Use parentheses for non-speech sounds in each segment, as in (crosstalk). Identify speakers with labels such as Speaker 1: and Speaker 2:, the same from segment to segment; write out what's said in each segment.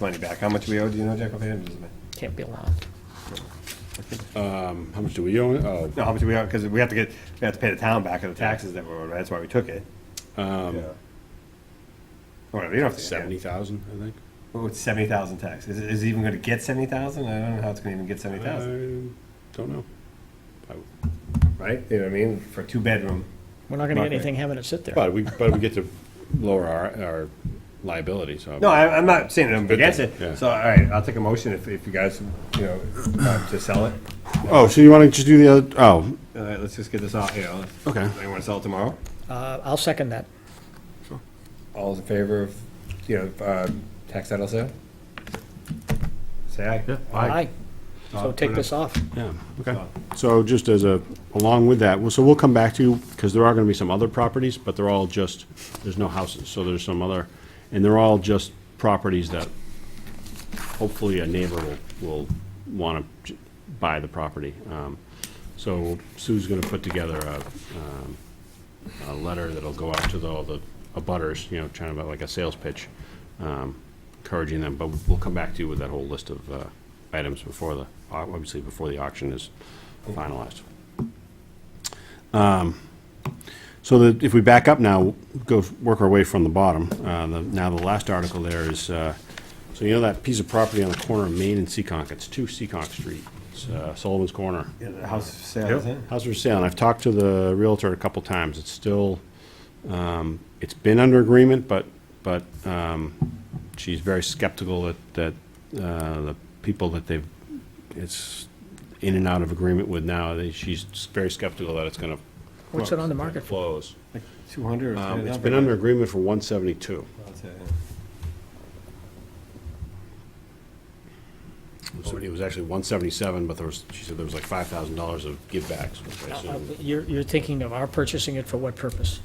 Speaker 1: money back. How much we owe, do you know, Jack, offhand? Doesn't matter.
Speaker 2: Can't be long.
Speaker 3: How much do we owe? it? Oh,
Speaker 1: No, how much we owe, because we have to get, we have to pay the town back of the taxes that were, owed, right? that's why we took it. Um. Whatever, you don't have to.
Speaker 3: seventy thousand, I think.
Speaker 1: Oh, it's seventy thousand tax. Is it, is it even gonna get seventy thousand? I don't know how it's gonna even get seventy thousand,
Speaker 3: I Don't know.
Speaker 1: right? You know what I mean? For a two-bedroom.
Speaker 2: We're not gonna
Speaker 1: Not
Speaker 2: get
Speaker 1: great.
Speaker 2: anything having it sit there.
Speaker 3: But we, but we get to lower our, our liability, so.
Speaker 1: No, I, I'm not saying I'm
Speaker 3: Good
Speaker 1: against
Speaker 3: thing,
Speaker 1: it.
Speaker 3: yeah.
Speaker 1: So, all right, I'll take a motion if, if you guys, you know, uh, to sell it.
Speaker 3: Oh, so you want to just do the other, oh,
Speaker 1: All right, let's just get this off, you know.
Speaker 3: Okay.
Speaker 1: You wanna sell it tomorrow?
Speaker 2: Uh, I'll second that.
Speaker 1: All's in favor of, you know, uh, tax title sale? Say aye.
Speaker 2: Aye. So
Speaker 1: Uh,
Speaker 2: take
Speaker 1: put it
Speaker 2: this off.
Speaker 3: yeah, okay. So just as a, along with that, well, so we'll come back to you, because there are going to be some other properties, but they're all just, there's no houses, so there's some other, and they're all just properties that hopefully a neighbor will, will want to buy the property. Um, So Sue's going to put together a, um, a letter that'll go out to the- all the abutters, you know, trying to, like a sales pitch, um, encouraging them, but we'll come back to you with that whole list of uh, items before the, obviously before the auction is finalized. Um, So that, if we back up now, go, f- work our way from the bottom, uh, the- now the last article there is, uh, so you know that piece of property on the corner of Main and Seekonk, it's two Seekonk Street, it's uh, Sullivan's Corner.
Speaker 1: Yeah, the house for sale, isn't it?
Speaker 3: How's for sale? And I've talked to the Realtor a couple times. It's still, um, it's been under agreement, but, but, um, she's very skeptical that, that, uh, the people that they've, it's in and out of agreement with now, they- she's very skeptical that it's gonna.
Speaker 2: What's it on the market for?
Speaker 3: Close.
Speaker 1: Like two hundred or
Speaker 3: Um,
Speaker 1: something.
Speaker 3: it's been under agreement for one seventy-two. So It was actually one seventy-seven, but there was, she said there was like five thousand dollars of givebacks, which I
Speaker 2: Uh,
Speaker 3: assume.
Speaker 2: You're, you're thinking of our purchasing it for what purpose?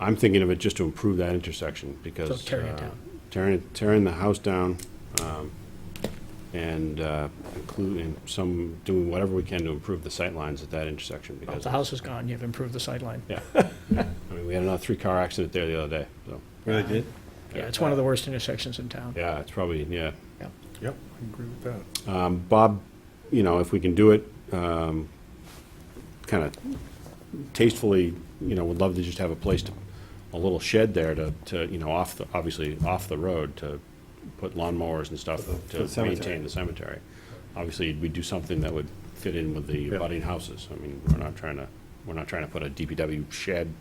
Speaker 3: I'm thinking of it just to improve that intersection because.
Speaker 2: So tearing it
Speaker 3: uh,
Speaker 2: down.
Speaker 3: Tearing, tearing the house down, um, and, uh, including some, doing whatever we can to improve the sight lines at that intersection
Speaker 2: Well,
Speaker 3: because.
Speaker 2: if the house is gone, you've improved the sightline.
Speaker 3: Yeah. (laughs) I mean, we had another three-car accident there the other day, so,
Speaker 1: Really did?
Speaker 2: Yeah, it's one of the worst intersections in town.
Speaker 3: yeah, it's probably, yeah.
Speaker 2: Yeah.
Speaker 1: Yep, I agree with that.
Speaker 3: Um, Bob, you know, if we can do it, um, kind of tastefully, you know, would love to just have a place to, a little shed there to, to, you know, off the, obviously, off the road to put lawnmowers and stuff
Speaker 1: for
Speaker 3: to
Speaker 1: the cemetery.
Speaker 3: maintain the cemetery. Obviously, we'd do something that would fit in with the
Speaker 1: Yeah.
Speaker 3: budding houses. I mean, we're not trying to, we're not trying to put a DPW shed,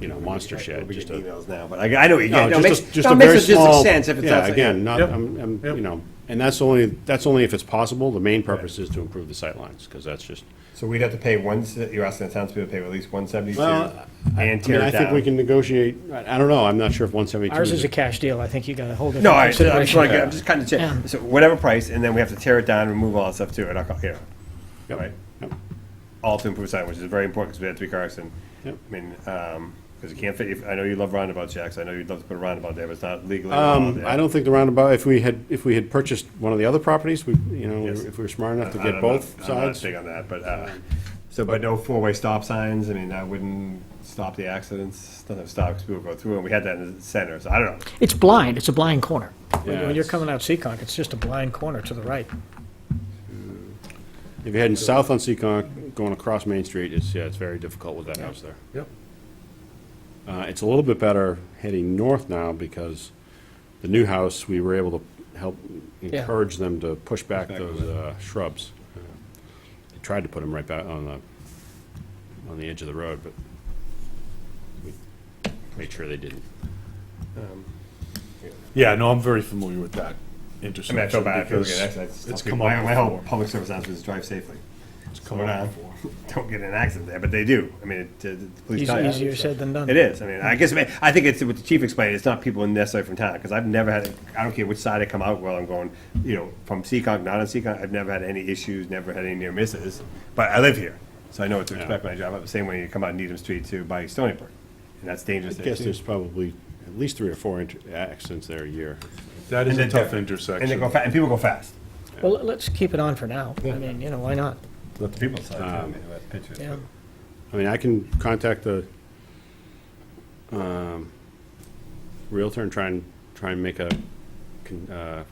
Speaker 3: you know, monster
Speaker 1: We'll
Speaker 3: shed,
Speaker 1: be
Speaker 3: just
Speaker 1: getting
Speaker 3: a
Speaker 1: emails now, but I, I know what you get. No, it
Speaker 3: just
Speaker 1: makes,
Speaker 3: a- just
Speaker 1: no,
Speaker 3: a
Speaker 1: it makes
Speaker 3: very small-
Speaker 1: logistic sense if it's.
Speaker 3: Yeah,
Speaker 1: outside-
Speaker 3: again, not,
Speaker 1: Yep.
Speaker 3: I'm, I'm,
Speaker 1: Yep.
Speaker 3: you know, and that's only, that's only if it's possible. The main purpose is to improve the sightlines, because that's just,
Speaker 1: So we'd have to pay one, se- you're asking the townspeople to pay at least one seventy-two
Speaker 3: Well,
Speaker 1: and
Speaker 3: I mean,
Speaker 1: tear
Speaker 3: I
Speaker 1: it down.
Speaker 3: think we can negotiate, I I don't know, I'm not sure if one seventy-two.
Speaker 2: Ours is a cash deal. I think you gotta hold it.
Speaker 1: No,
Speaker 2: in
Speaker 1: I, I'm just
Speaker 2: consideration.
Speaker 1: like, I'm just cutting the
Speaker 2: Yeah.
Speaker 1: check. So whatever price, and then we have to tear it down, remove all that stuff too, and I'll, you know, right?
Speaker 3: Yep.
Speaker 1: All to improve sign, which is very important, because we had three cars, and, I
Speaker 3: Yep.
Speaker 1: mean, um 'cause because you can't fit, if- I know you love roundabouts, Jack, so I know you'd love to put a roundabout there, but it's not legally. allowed
Speaker 3: Um,
Speaker 1: there.
Speaker 3: I don't think the roundabout, if we had, if we had purchased one of the other properties, we, you know,
Speaker 1: Yes.
Speaker 3: if we were smart enough to
Speaker 1: I
Speaker 3: get
Speaker 1: don't know.
Speaker 3: both
Speaker 1: I'm not
Speaker 3: sides.
Speaker 1: big on that, but, uh, so, but no four-way stop signs, I mean, that wouldn't stop the accidents, doesn't stop, because people go through, and we had that in the center, so I don't know.
Speaker 2: It's blind. It's a blind corner. When
Speaker 3: Yeah,
Speaker 2: when you're
Speaker 3: it's-
Speaker 2: coming out Seekonk, it's just a blind corner to the right.
Speaker 3: If you're heading south on Seekonk, going across Main Street, it's, yeah, it's very difficult with that house there.
Speaker 1: Yep.
Speaker 3: Uh, it's a little bit better heading north now because the new house, we were able to help
Speaker 2: Yeah.
Speaker 3: encourage them to push back
Speaker 1: Push back
Speaker 3: those uh, shrubs. They tried to put them right back on the, on the edge of the road, but we made sure they didn't.
Speaker 4: Yeah, no, I'm very familiar with that
Speaker 1: I mean, I
Speaker 4: intersection
Speaker 1: feel bad, I feel
Speaker 4: because
Speaker 1: good, actually, I just tell
Speaker 4: it's
Speaker 1: people,
Speaker 4: come
Speaker 1: my,
Speaker 4: up
Speaker 1: my whole
Speaker 4: before.
Speaker 1: public service announcement is drive safely.
Speaker 4: It's
Speaker 1: So
Speaker 4: come
Speaker 1: we're
Speaker 4: up
Speaker 1: not,
Speaker 4: before.
Speaker 1: (laughs) don't get in an accident there, but they do. I mean, it, uh, the police
Speaker 2: Easy-
Speaker 1: tell you.
Speaker 2: Easier said than done.
Speaker 1: It is. I mean, I guess, I mean, I think it's what the chief explained, it's not people necessarily from town, because I've never had, I don't care which side I come out while I'm going, you know, from Seekonk, not on Seekonk, I've never had any issues, never had any near misses, but I live here, so I know what to expect when I drive up, the same way you come out Needham Street to by Stony Brook, and that's dangerous
Speaker 3: I
Speaker 1: there
Speaker 3: guess
Speaker 1: too.
Speaker 3: there's probably at least three or four inter- accidents there a year.
Speaker 4: That is
Speaker 1: And
Speaker 4: a
Speaker 1: they go-
Speaker 4: tough intersection.
Speaker 1: And they go, fa- and people go fast.
Speaker 2: Well, let's keep it on for now. I mean, you know, why not?
Speaker 1: Let the people decide, too,
Speaker 4: Um,
Speaker 1: I mean, let's pitch it.
Speaker 2: Yeah.
Speaker 3: I mean, I can contact the um, Realtor and try and, try and make a con- uh,